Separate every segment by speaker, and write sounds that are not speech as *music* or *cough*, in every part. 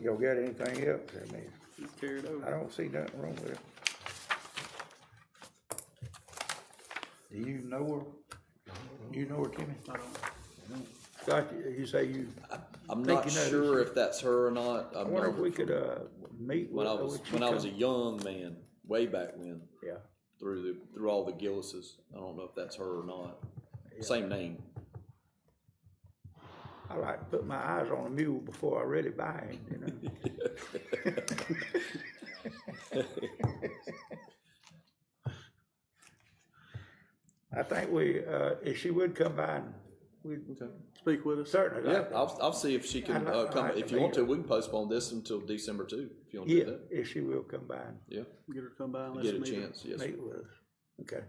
Speaker 1: y'all got anything else? I mean,
Speaker 2: He's carried
Speaker 1: I
Speaker 2: over.
Speaker 1: don't see nothing wrong with it. Do you know her? You know her, Timmy?
Speaker 2: I don't-
Speaker 1: Scott, you you say you,
Speaker 3: I'm
Speaker 1: Think
Speaker 3: not
Speaker 1: you know
Speaker 3: sure if that's her or not.
Speaker 1: I
Speaker 3: I'm
Speaker 1: wonder
Speaker 3: not,
Speaker 1: if we could, uh, meet with
Speaker 3: when I
Speaker 1: her.
Speaker 3: was
Speaker 1: would she
Speaker 3: when I was a
Speaker 1: come?
Speaker 3: young man, way back when,
Speaker 1: Yeah,
Speaker 3: through the through all the Gillises. I don't know if that's her or not. Same name.
Speaker 1: I like to put my eyes on a mule before I really buy it, you know? *laughs* I think we, uh, if she would come by and we
Speaker 3: Okay.
Speaker 2: Speak with us.
Speaker 1: certainly
Speaker 3: Yeah,
Speaker 1: like to-
Speaker 3: I'll, I'll see if she can
Speaker 1: I'd like-
Speaker 3: uh,
Speaker 1: I'd
Speaker 3: come.
Speaker 1: like to
Speaker 3: If you want
Speaker 1: meet
Speaker 3: to,
Speaker 1: her.
Speaker 3: we can postpone this until December too. If you want to
Speaker 1: Yeah,
Speaker 3: do that,
Speaker 1: if she will come by and
Speaker 3: yeah,
Speaker 2: Get her to come by and let's
Speaker 3: get a
Speaker 2: meet her.
Speaker 3: chance. Yes, sir.
Speaker 1: meet with us. Okay.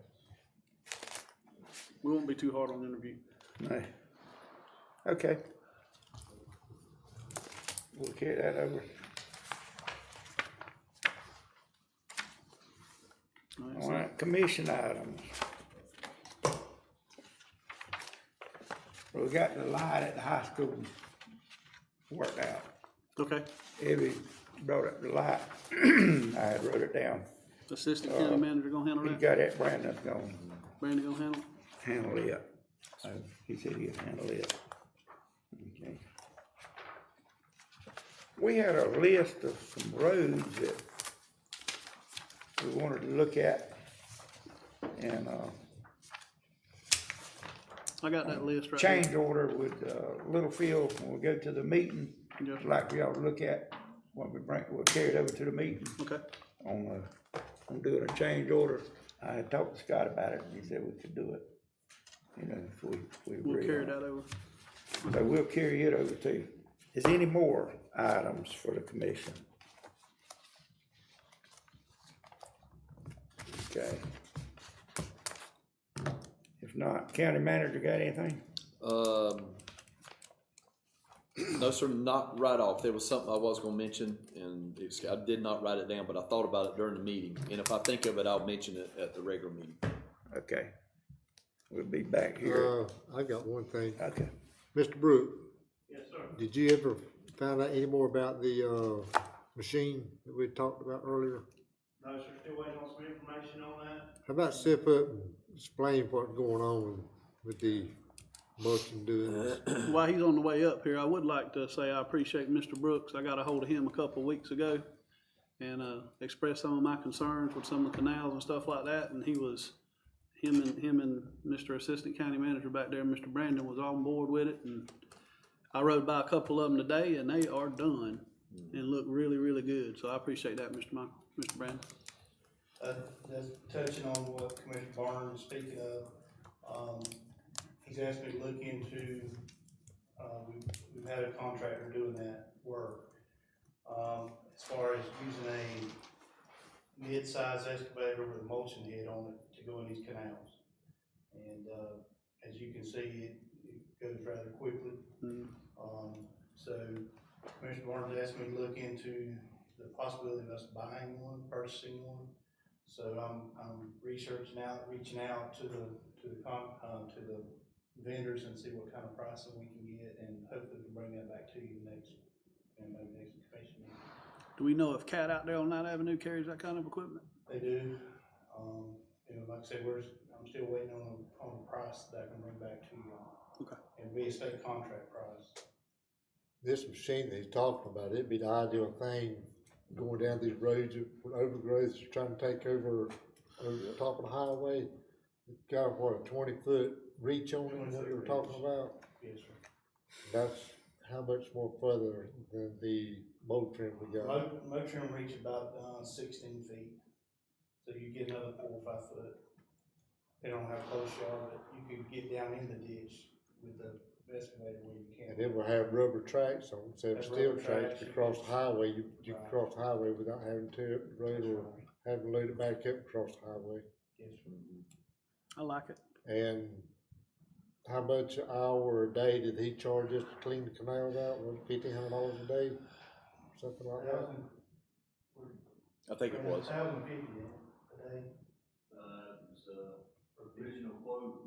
Speaker 2: We won't be too hard on the interview.
Speaker 1: No. Okay. We'll carry that over.
Speaker 2: All right,
Speaker 1: All
Speaker 2: so
Speaker 1: right, commission items. We got the light at the high school worked out.
Speaker 2: Okay,
Speaker 1: Evie brought up the light. *clears throat* I had wrote it down.
Speaker 2: assistant county manager gonna handle
Speaker 1: He
Speaker 2: that?
Speaker 1: got it, Brandon's gonna
Speaker 2: Brandy gonna handle? it?
Speaker 1: handle it. Uh, He said he'd handle it. Okay. We had a list of some roads that we wanted to look at. And, uh,
Speaker 2: I got that list right here.
Speaker 1: change order with, uh, Littlefield when we go to the meeting.
Speaker 2: Yes.
Speaker 1: Like we ought to look at, what we bring, we'll carry it over to the meeting
Speaker 2: Okay,
Speaker 1: on, uh, on doing a change order. I had talked to Scott about it, and he said we could do it, you know, if we, we
Speaker 2: we'll
Speaker 1: agree on
Speaker 2: carry
Speaker 1: it.
Speaker 2: that over.
Speaker 1: So we'll carry it over to you. Is there any more items for the commission? Okay. If not, county manager got anything?
Speaker 3: Um, no, sir, not right off. There was something I was going to mention, and it's, I did not write it down, but I thought about it during the meeting. And if I think of it, I'll mention it at the regular meeting.
Speaker 1: Okay. We'll be back here.
Speaker 4: Uh, I got one thing.
Speaker 1: Okay.
Speaker 4: Mr. Brooke? Yes, sir. Did you ever find out any more about the, uh, machine that we talked about earlier?
Speaker 5: No, sir, still waiting on some information on that.
Speaker 4: How about step up and explain what's going on with the mulch and doing?
Speaker 2: While he's on the way up here, I would like to say I appreciate Mr. Brooks. I got a hold of him a couple of weeks ago and, uh, expressed some of my concerns with some of the canals and stuff like that, and he was, him and, him and Mr. Assistant County Manager back there, Mr. Brandon, was on board with it, and I rode by a couple of them today, and they are done and look really, really good, so I appreciate that, Mr. Michael, Mr. Brandon.
Speaker 5: Uh, just touching on what Commissioner Barnes was speaking of, um, he's asked me to look into, uh, we've, we've had a contractor doing that work. Um, as far as using a mid-size excavator with a mulching head on it to go in these canals. And, uh, as you can see, it, it goes rather quickly.
Speaker 2: Mm.
Speaker 5: Um, so Commissioner Barnes asked me to look into the possibility of us buying one, purchasing one. So I'm, I'm researching out, reaching out to the, to the con, uh, to the vendors and see what kind of pricing we can get and hopefully can bring that back to you next, and maybe next commission meeting.
Speaker 2: Do we know if Cat out there on Ninth Avenue carries that kind of equipment?
Speaker 5: They do, um, you know, like I said, we're, I'm still waiting on, a- on a price that I can bring back to you.
Speaker 2: Okay.
Speaker 5: And we expect contract price.
Speaker 4: This machine that he's talking about, it'd be the ideal thing going down these roads with overgrowth, that's trying to take over, over the top of the highway. It's Got what, a twenty foot reach on it, what we were talking about?
Speaker 5: Yes, sir.
Speaker 4: That's how much more further than the mold trim we got.
Speaker 5: Mo- Mow trim reach about uh, sixteen feet, so you get another four or five foot. They don't have close you are, but you can get down in the ditch with the excavator where you
Speaker 4: And
Speaker 5: can.
Speaker 4: it will have rubber tracks on, it, so
Speaker 5: Have
Speaker 4: it's steel
Speaker 5: rubber
Speaker 4: tracks
Speaker 5: tracks,
Speaker 4: to
Speaker 5: you
Speaker 4: cross the
Speaker 5: can-
Speaker 4: highway, you, you can
Speaker 5: Right.
Speaker 4: cross the highway without having to tear up the road
Speaker 5: That's
Speaker 4: or
Speaker 5: right.
Speaker 4: having to load it back up and cross the highway.
Speaker 5: Yes, sir.
Speaker 2: I like it.
Speaker 4: And how much an hour a day did he charge us to clean the canals out? Was it fifteen hundred dollars a day? Something like that?
Speaker 5: Thousand-
Speaker 3: I think it was.
Speaker 5: Thousand fifty a day.
Speaker 6: Uh, it was a original quote